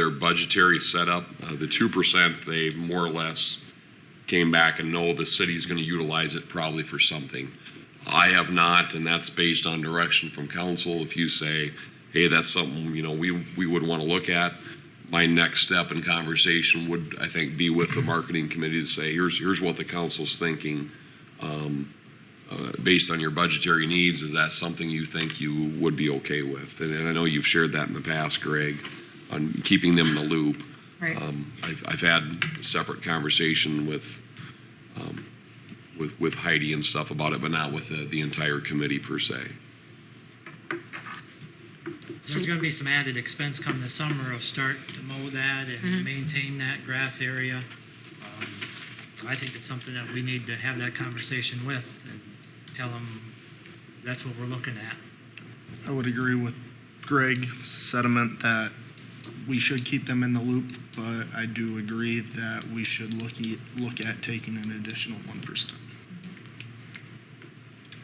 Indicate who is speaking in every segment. Speaker 1: their budgetary setup. Uh, The 2%, they more or less came back and know the city's going to utilize it probably for something. I have not, and that's based on direction from council. If you say, hey, that's something, you know, we, we would want to look at, my next step in conversation would, I think, be with the marketing committee to say, here's, here's what the council's thinking. um, uh, Based on your budgetary needs, is that something you think you would be okay with? And- And I know you've shared that in the past, Greg, on keeping them in the loop.
Speaker 2: Right.
Speaker 1: Um, I've, I've had a separate conversation with, um, with, with Heidi and stuff about it, but not with the, the entire committee per se.
Speaker 3: So There's going to be some added expense come this summer of start to mow that and maintain that grass area. Um, I think it's something that we need to have that conversation with and tell them that's what we're looking at.
Speaker 4: I would agree with Greg's sentiment that we should keep them in the loop, but I do agree that we should look, e- look at taking an additional one percent.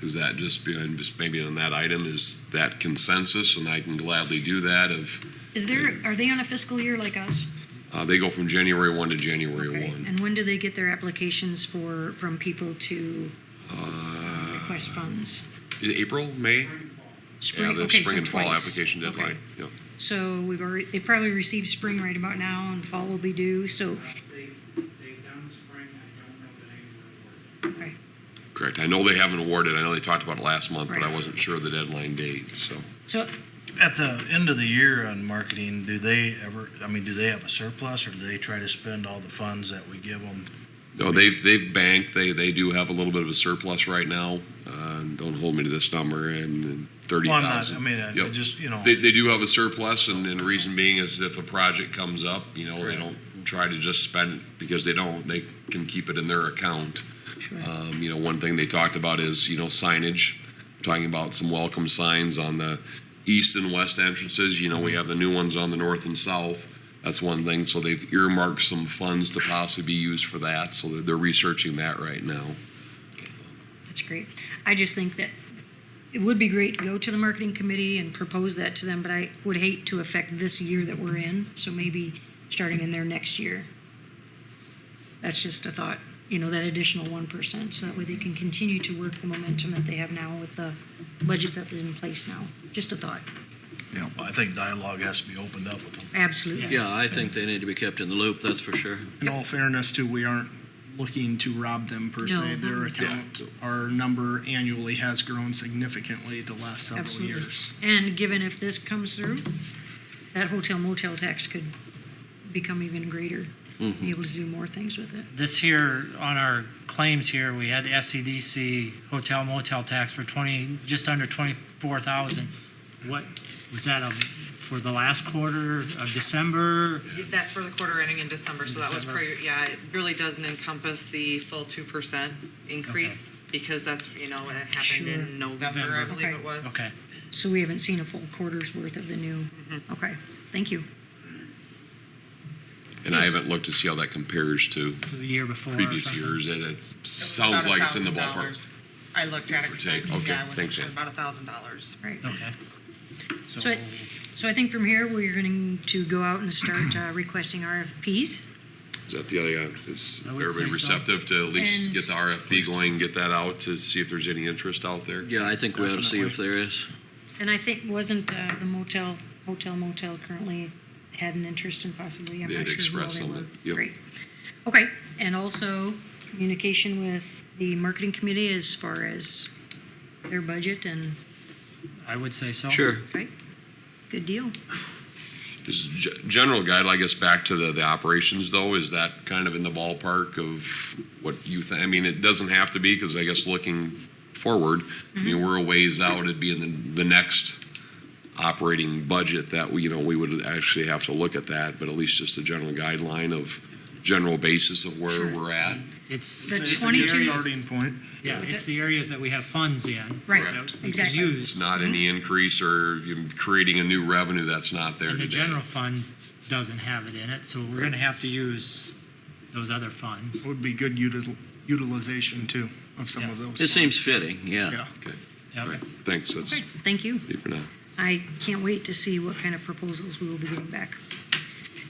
Speaker 1: Is that just, be- and just maybe on that item, is that consensus? And I can gladly do that if,
Speaker 2: Is there, are they on a fiscal year like us?
Speaker 1: uh, they go from January 1 to January
Speaker 2: Okay.
Speaker 1: 1.
Speaker 2: And when do they get their applications for, from people to
Speaker 1: Uh,
Speaker 2: request funds?
Speaker 1: April, May? Yeah,
Speaker 2: Spring,
Speaker 1: the
Speaker 2: okay,
Speaker 1: spring
Speaker 2: so
Speaker 1: and fall
Speaker 2: twice.
Speaker 1: application
Speaker 2: Okay.
Speaker 1: deadline. Yep.
Speaker 2: So we've already, they probably received spring right about now and fall will be due, so,
Speaker 5: They, they've done spring, I don't know the name of the word.
Speaker 2: okay.
Speaker 1: Correct. I know they haven't awarded, I know they talked about it last month, but I
Speaker 2: Right.
Speaker 1: wasn't sure of the deadline date, so.
Speaker 2: So
Speaker 6: At the end of the year on marketing, do they ever, I mean, do they have a surplus or do they try to spend all the funds that we give them?
Speaker 1: No, they've, they've banked, they, they do have a little bit of a surplus right now. Uh, Don't hold me to this number, and and thirty
Speaker 6: Well, I'm not,
Speaker 1: thousand.
Speaker 6: I mean, I- I just, you know,
Speaker 1: They, they do have a surplus, and, and reason being is if a project comes up, you know, they
Speaker 6: Correct.
Speaker 1: don't try to just spend it because they don't, they can keep it in their account.
Speaker 2: Sure.
Speaker 1: Um, you know, one thing they talked about is, you know, signage, talking about some welcome signs on the east and west entrances. You know, we have the new ones on the north and south. That's one thing. So they've earmarked some funds to possibly be used for that. So they're- they're researching that right now.
Speaker 2: That's great. I just think that it would be great to go to the marketing committee and propose that to them, but I would hate to affect this year that we're in, so maybe starting in there next year. That's just a thought, you know, that additional one percent, so that way they can continue to work the momentum that they have now with the budget that's in place now. Just a thought,
Speaker 6: you know, I think dialogue has to be opened up with them.
Speaker 2: absolutely.
Speaker 7: Yeah, I think they need to be kept in the loop, that's for sure.
Speaker 4: In all fairness too, we aren't looking to rob them per
Speaker 2: No.
Speaker 4: se. Their
Speaker 2: Yeah.
Speaker 4: account, our number annually has grown significantly the last several
Speaker 2: Absolutely.
Speaker 4: years.
Speaker 2: And given if this comes through, that hotel motel tax could become even greater,
Speaker 7: Mm-hmm.
Speaker 2: be able to do more things with it.
Speaker 3: This here, on our claims here, we had the SCDC hotel motel tax for 20, just under 24,000. What, was that a- for the last quarter of December?
Speaker 8: That's for the quarter ending in December, so that was
Speaker 3: December.
Speaker 8: pretty, yeah, it really doesn't encompass the full two percent increase because that's, you know, it happened
Speaker 2: Sure.
Speaker 8: in November, I
Speaker 3: November.
Speaker 8: believe
Speaker 2: Okay.
Speaker 8: it was.
Speaker 3: Okay.
Speaker 2: So we haven't seen a full quarter's worth of the new, okay, thank you.
Speaker 1: And I haven't looked to see how that compares to
Speaker 3: to the year before. or
Speaker 1: previous
Speaker 3: something.
Speaker 1: years. It, it
Speaker 8: It was
Speaker 1: sounds
Speaker 8: about
Speaker 1: like it's in the
Speaker 8: $1,000.
Speaker 1: ballpark.
Speaker 8: I looked at it, 'cause I
Speaker 1: Take.
Speaker 8: think, yeah,
Speaker 1: Okay,
Speaker 8: I wasn't
Speaker 1: thanks,
Speaker 8: sure,
Speaker 1: Ann.
Speaker 8: about a thousand dollars.
Speaker 2: Right.
Speaker 3: Okay.
Speaker 2: So, I- so I think from here, we're going to go out and start uh, requesting RFPs.
Speaker 1: Is that the other, guy? is
Speaker 3: I would say
Speaker 1: everybody
Speaker 3: so.
Speaker 1: receptive to at
Speaker 2: And-
Speaker 1: least get the RFP going, get that out to see if there's any interest out there?
Speaker 7: Yeah, I think we ought to see if there is.
Speaker 2: And I think, wasn't uh, the motel, hotel motel currently had an interest in possibly, I'm
Speaker 1: They
Speaker 2: not
Speaker 1: had
Speaker 2: sure who all
Speaker 1: expressed
Speaker 2: they
Speaker 1: some
Speaker 2: were.
Speaker 1: of it, yep.
Speaker 2: Great. Okay, and also communication with the marketing committee as far as their budget and,
Speaker 3: I would say so.
Speaker 7: Sure.
Speaker 2: right? Good deal.
Speaker 1: Is g- general guide, I guess, back to the, the operations though, is that kind of in the ballpark of what you think? I mean, it doesn't have to be, because I guess looking forward, I mean, we're a ways out, it'd be in the, the next operating budget that, we you know, we would actually have to look at that, but at least just a general guideline of general basis of where we're at.
Speaker 3: It's,
Speaker 2: The
Speaker 3: it's
Speaker 4: It's
Speaker 3: the
Speaker 4: a good
Speaker 2: 22
Speaker 3: areas-
Speaker 4: Starting point.
Speaker 3: Yeah, it's the areas that we have funds in.
Speaker 2: Right,
Speaker 3: that we
Speaker 2: exactly.
Speaker 3: can Use.
Speaker 1: Not any increase or you- creating a new revenue that's not there
Speaker 3: And the
Speaker 1: today.
Speaker 3: general fund doesn't have it in it, so we're gonna have to use those other funds.
Speaker 4: Would be good util- utilization too of some of
Speaker 3: Yes.
Speaker 4: those.
Speaker 7: It seems fitting, yeah.
Speaker 4: Yeah.
Speaker 1: All
Speaker 3: Yep.
Speaker 1: right, thanks, that's
Speaker 2: Okay, thank you.
Speaker 1: it for now.
Speaker 2: I can't wait to see what kind of proposals we will be getting back.